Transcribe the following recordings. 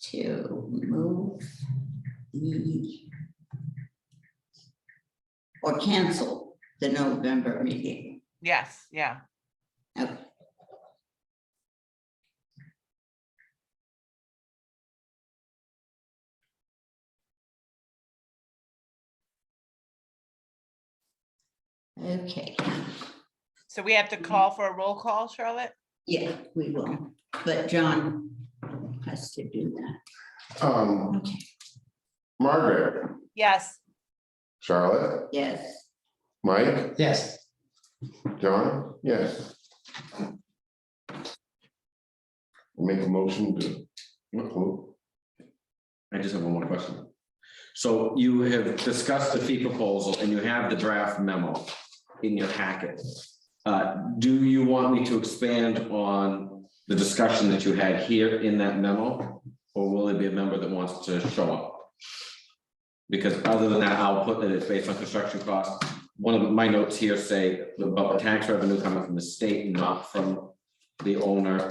to move the or cancel the November meeting. Yes, yeah. Okay. Okay, So we have to call for a roll call, Charlotte? yeah, we will, but John has to do that. Um, Okay, Margaret, Yes. Charlotte, yes, Mike, Yes, John, yes. Make a motion to. who? I just have one more question. So you have discussed the fee proposal and you have the draft memo in your packet. Uh, do you want me to expand on the discussion that you had here in that memo? Or will it be a member that wants to show up? Because other than that, I'll put that it's based on construction costs. One of my notes here say about tax revenue coming from the state, not from the owner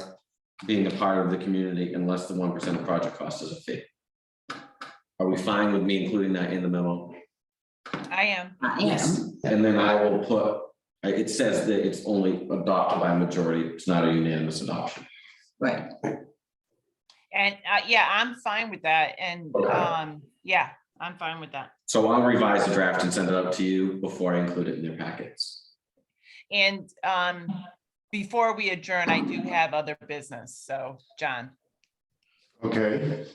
being a part of the community unless the one percent of project cost is a fee. Are we fine with me including that in the memo? I am. I Yes. am, And then I will put, I- it says that it's only adopted by majority, it's not a unanimous adoption. right, And, uh, yeah, I'm fine with that. And, Okay. um, yeah, I'm fine with that. So I'll revise the draft and send it up to you before I include it in your packets. And, um, before we adjourn, I do have other business. So, John, Okay.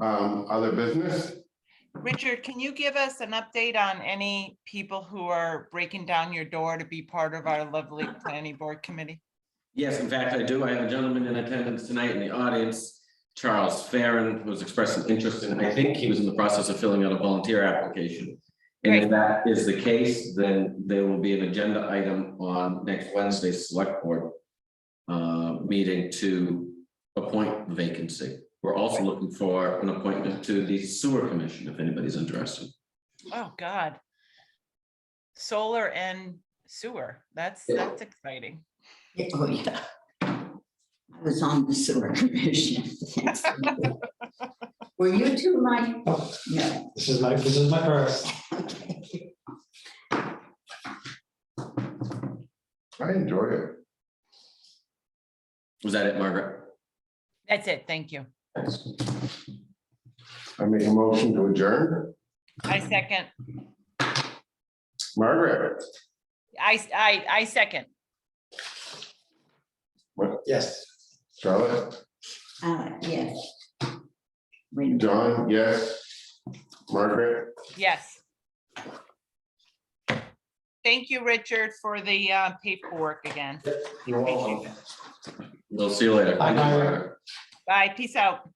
Um, other business? Richard, can you give us an update on any people who are breaking down your door to be part of our lovely planning board committee? Yes, in fact, I do. I have a gentleman in attendance tonight in the audience, Charles Farren, who's expressed an interest in, I think he was in the process of filling out a volunteer application. And if that is the case, then there will be an agenda item on next Wednesday's select board uh, meeting to appoint the vacancy. We're also looking for an appointment to the sewer commission, if anybody's interested. Oh, God. Solar and sewer. That's, that's exciting. Yeah, oh, yeah. I was on the sewer commission. Thanks. Were you too, Mike? No, this is my, this is my first. okay, I enjoy it. Was that it, Margaret? That's it. Thank you. I make a motion to adjourn. I second. Margaret, I, s- I, I second. Yes. Charlotte, uh, yes. Wait a minute. John, yes. Margaret, Yes. Thank you, Richard, for the uh, paperwork again. You're welcome. We'll see you later. Bye, Margaret. Bye. Peace out.